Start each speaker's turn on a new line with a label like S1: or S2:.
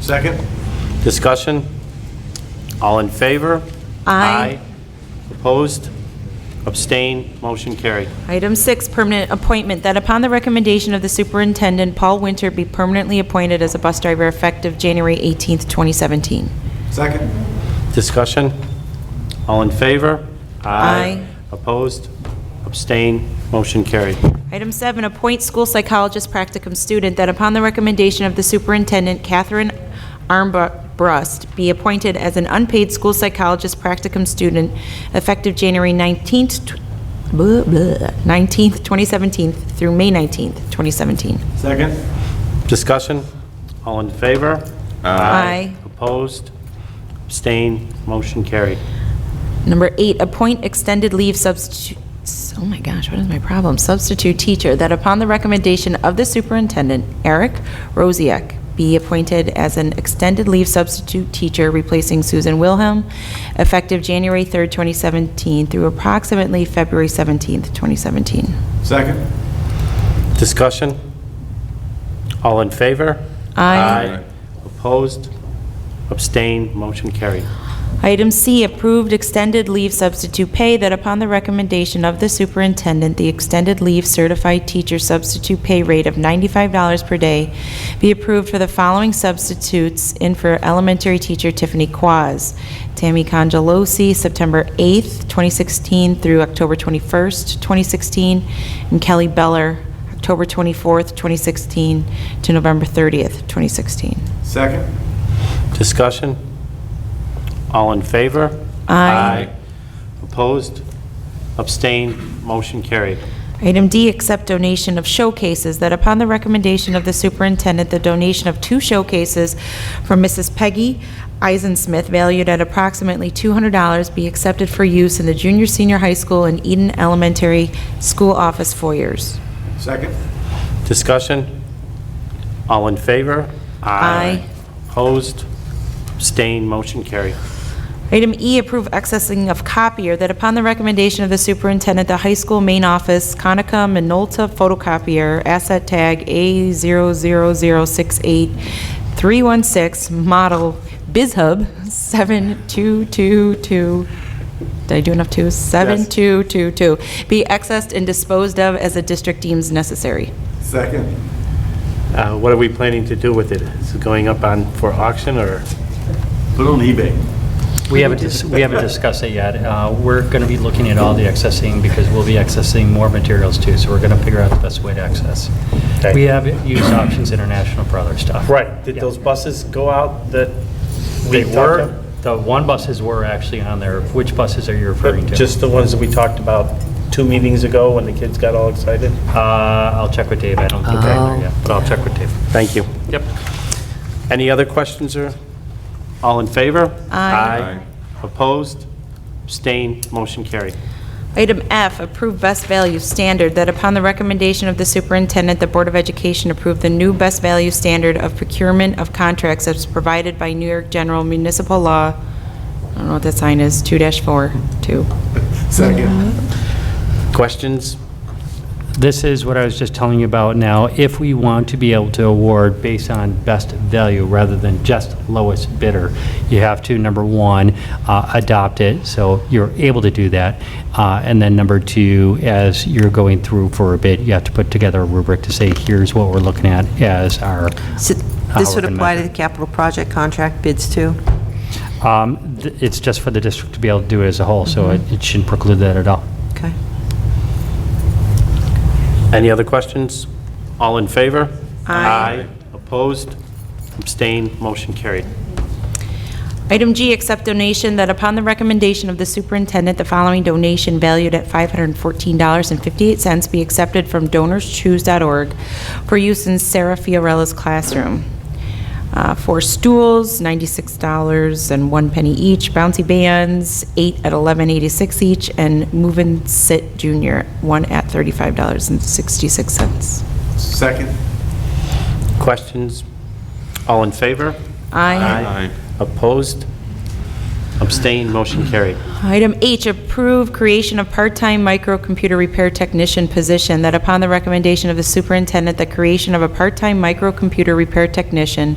S1: Second?
S2: Discussion? All in favor?
S3: Aye.
S2: Opposed? Abstain? Motion carried.
S3: Item six, permanent appointment, that upon the recommendation of the superintendent, Paul Winter be permanently appointed as a bus driver effective January 18th, 2017.
S1: Second?
S2: Discussion? All in favor?
S3: Aye.
S2: Opposed? Abstain? Motion carried.
S3: Item seven, appoint school psychologist practicum student, that upon the recommendation of the superintendent, Catherine Armbrust be appointed as an unpaid school psychologist practicum student effective January 19th, tw- blah, blah, 19th, 2017 through May 19th, 2017.
S1: Second?
S2: Discussion? All in favor?
S3: Aye.
S2: Opposed? Abstain? Motion carried.
S3: Number eight, appoint extended leave substitute, oh my gosh, what is my problem? Substitute teacher, that upon the recommendation of the superintendent, Eric Rosiak, be appointed as an extended leave substitute teacher replacing Susan Wilhelm, effective January 3rd, 2017 through approximately February 17th, 2017.
S1: Second?
S2: Discussion? All in favor?
S3: Aye.
S2: Opposed? Abstain? Motion carried.
S3: Item C, approved extended leave substitute pay, that upon the recommendation of the superintendent, the extended leave certified teacher substitute pay rate of $95 per day be approved for the following substitutes in for elementary teacher Tiffany Quaz, Tammy Congelosi, September 8th, 2016 through October 21st, 2016, and Kelly Beller, October 24th, 2016 to November 30th, 2016.
S1: Second?
S2: Discussion? All in favor?
S3: Aye.
S2: Opposed? Abstain? Motion carried.
S3: Item D, accept donation of showcases, that upon the recommendation of the superintendent, the donation of two showcases from Mrs. Peggy Eisenmith, valued at approximately $200, be accepted for use in the junior, senior high school and Eden Elementary School office foyers.
S1: Second?
S2: Discussion? All in favor?
S3: Aye.
S2: Opposed? Abstain? Motion carried.
S3: Item E, approve accessing of copier, that upon the recommendation of the superintendent, the high school main office, Conica Minolta photocopier, asset tag A00068-316, model BizHub 7222, did I do enough twos? 7222, be accessed and disposed of as the district deems necessary.
S1: Second?
S2: Uh, What are we planning to do with it? Is it going up on, for auction, or?
S1: Put it on eBay.
S4: We haven't, dis- we haven't discussed it yet. Uh, We're going to be looking at all the accessing because we'll be accessing more materials too, so we're going to figure out the best way to access.
S2: Okay.
S4: We have used Options International for other stuff.
S2: Did
S4: Yeah.
S2: those buses go out that we
S4: They
S2: talked
S4: were,
S2: about?
S4: the one buses were actually on there. Which buses are you referring to?
S2: Just the ones that we talked about two meetings ago when the kids got all excited?
S4: Uh, I'll check with Dave. I don't think they're there yet, but I'll check with Dave.
S2: Uh-huh. Thank you.
S4: Yep.
S2: Any other questions, or? All in favor?
S3: Aye.
S2: Opposed? Abstained? Motion carried.
S3: Item F, approve best value standard, that upon the recommendation of the superintendent, the Board of Education approve the new best value standard of procurement of contracts as provided by New York General Municipal Law, I don't know what that sign is, 2-4, 2.
S1: Second?
S2: Questions?
S4: This is what I was just telling you about now. If we want to be able to award based on best value rather than just lowest bidder, you have to, number one, uh, adopt it, so you're able to do that. Uh, And then number two, as you're going through for a bid, you have to put together a rubric to say, here's what we're looking at as our.
S5: So
S4: how
S5: This
S4: we're
S5: would
S4: gonna
S5: apply to
S4: measure.
S5: the capital project contract bids too?
S4: Um, th- It's just for the district to be able to do it as a whole, so it
S5: Mm-hmm.
S4: it shouldn't preclude that at all.
S5: Okay.
S2: Any other questions? All in favor?
S3: Aye.
S2: Opposed? Abstained? Motion carried.
S3: Item G, accept donation, that upon the recommendation of the superintendent, the following donation valued at $514.58 be accepted from donorschoose.org for use in Sarah Fiorella's classroom. Uh, Four stools, $96 and one penny each, bouncy bands, eight at $11.86 each, and move and sit junior, one at $35.66.
S1: Second?
S2: Questions? All in favor?
S3: Aye.
S2: Opposed? Abstained? Motion carried.
S3: Item H, approve creation of part-time microcomputer repair technician position, that upon the recommendation of the superintendent, the creation of a part-time microcomputer repair technician